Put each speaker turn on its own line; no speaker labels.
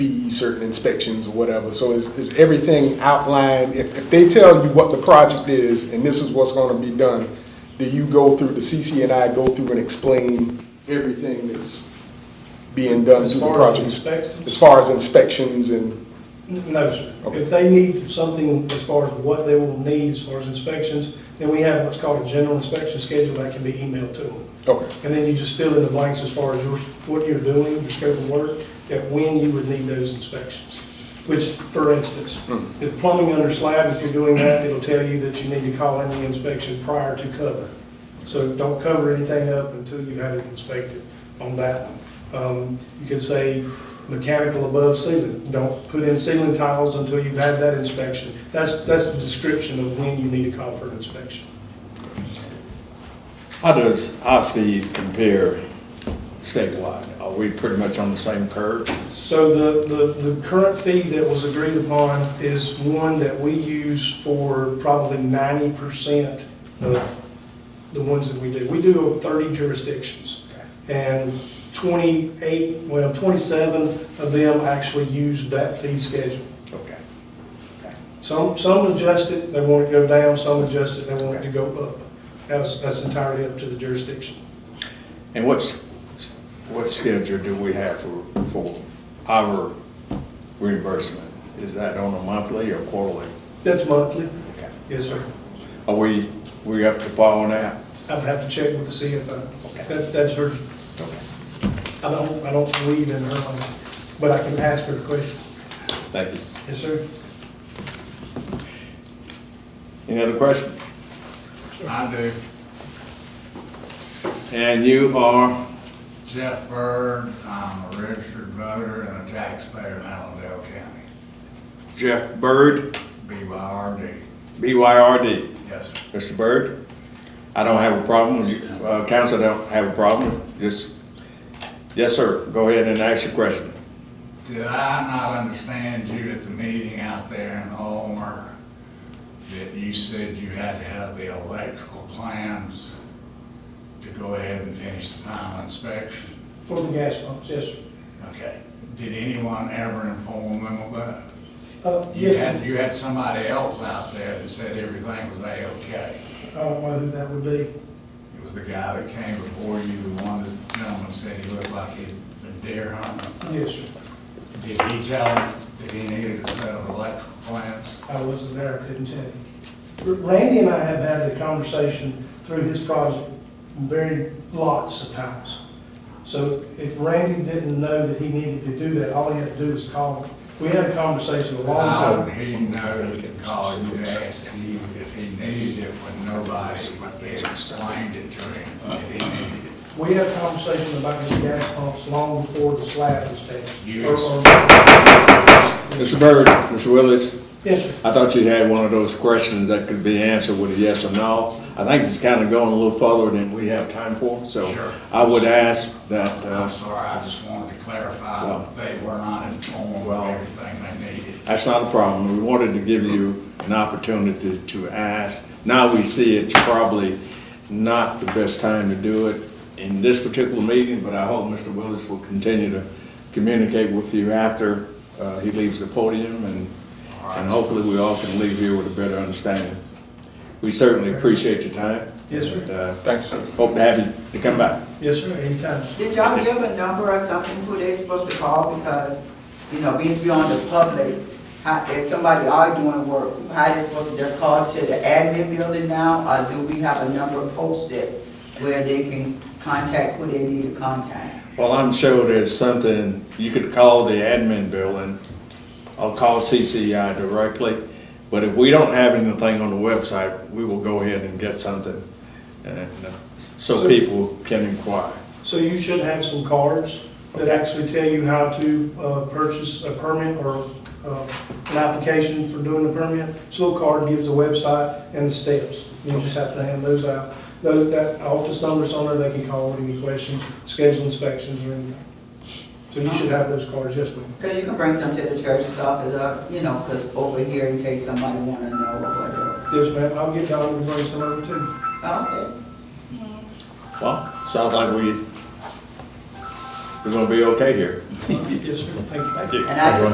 be certain inspections or whatever. So is, is everything outlined? If, if they tell you what the project is and this is what's gonna be done, do you go through, the CC and I go through and explain everything that's being done
As
through the
far as
project?
inspections?
As far as inspections and,
No, sir.
Okay.
If they need something as far as what they will need as far as inspections, then we have what's called a general inspection schedule that can be emailed to them.
okay,
And then you just fill in the blanks as far as your, what you're doing, your scope of work, that when you would need those inspections. Which, for instance, if plumbing under slab, if you're doing that, it'll tell you that you need to call in the inspection prior to cover. So don't cover anything up until you've had it inspected on that one. Um, You could say mechanical above ceiling, don't put in ceiling tiles until you've had that inspection. That's, that's the description of when you need to call for an inspection.
How does our fee compare statewide? Are we pretty much on the same curve?
So the, the, the current fee that was agreed upon is one that we use for probably ninety percent of the ones that we do. We do over thirty jurisdictions. And twenty-eight, well, twenty-seven of them actually use that fee schedule.
Okay.
Some, some adjust it, they want it to go down, some adjust it, they want it to go up. That's, that's entirely up to the jurisdiction.
And what's, what schedule do we have for, for our reimbursement? Is that on a monthly or quarterly?
That's monthly.
Okay.
Yes, sir.
Are we, we up to par on that?
I'd have to check with the CFO.
Okay.
That, that's her
Okay.
I don't, I don't believe in her, on that, but I can ask her a question.
Thank you.
Yes, sir?
Any other questions?
I do.
And you are,
Jeff Bird, I'm a registered voter and a taxpayer in Allendale County,
Jeff Byrd,
BYRD.
BYRD.
Yes, sir.
Mr. Byrd, I don't have a problem, You- uh, council don't have a problem, just, yes, sir, go ahead and ask your question.
Did I not understand you at the meeting out there in Ulmer that you said you had to have the electrical plans to go ahead and finish the final inspection?
For the gas pumps, yes, sir.
Okay. Did anyone ever inform them of that?
Uh,
You
yes,
had,
sir.
you had somebody else out there that said everything was A-okay.
I don't know who that would be.
It was the guy that came before you, the one that the gentleman said he looked like he'd been deer hunting.
Yes, sir.
Did he tell him that he needed a set of electrical plans?
I wasn't there, I couldn't tell you. Randy and I have had the conversation through his project very lots of times. So if Randy didn't know that he needed to do that, all he had to do was call him. We had a conversation a long
How
time.
would he know he could call you to ask you if he needed it when nobody had explained it to him that he needed it?
We had a conversation about these gas pumps long before the slab was finished.
You
Or- or-
Mr. Byrd, Mr. Willis,
Yes, sir.
I thought you had one of those questions that could be answered with a yes or no. I think it's kind of going a little further than we have time for, so
Sure.
I would ask that,
I'm
uh,
sorry, I just wanted to clarify that they were not informed of
Well-
everything they needed.
that's not a problem, we wanted to give you an opportunity to ask. Now we see it's probably not the best time to do it in this particular meeting, but I hope Mr. Willis will continue to communicate with you after uh, he leaves the podium, and and hopefully we all can leave here with a better understanding. We certainly appreciate your time.
Yes, sir.
And, uh,
thanks, sir.
Hope to have you to come back.
Yes, sir, anytime.
Did y'all give a number or something who they supposed to call because, you know, being beyond the public, how, if somebody are doing work, how they supposed to just call to the admin building now? Or do we have a number posted where they can contact who they need to contact?
Well, I'm sure there's something, you could call the admin building, or call CCI directly, but if we don't have anything on the website, we will go ahead and get something, and uh, so
So-
people can inquire.
So you should have some cards that actually tell you how to uh, purchase a permit or uh, an application for doing the permit. This little card gives the website and the steps. You just have to hand those out. Those, that office number's on there, they can call with any questions, schedule inspections or anything. So you should have those cards, yes, ma'am.
Cause you can bring some to the church's office up, you know, cause over here in case somebody wanna know or whatever.
Yes, ma'am, I'll get Donna to bring some over too.
Okay.
Well, sounds like we
we're gonna be okay here.
Yes, sir, thank you.
Thank you.
And I just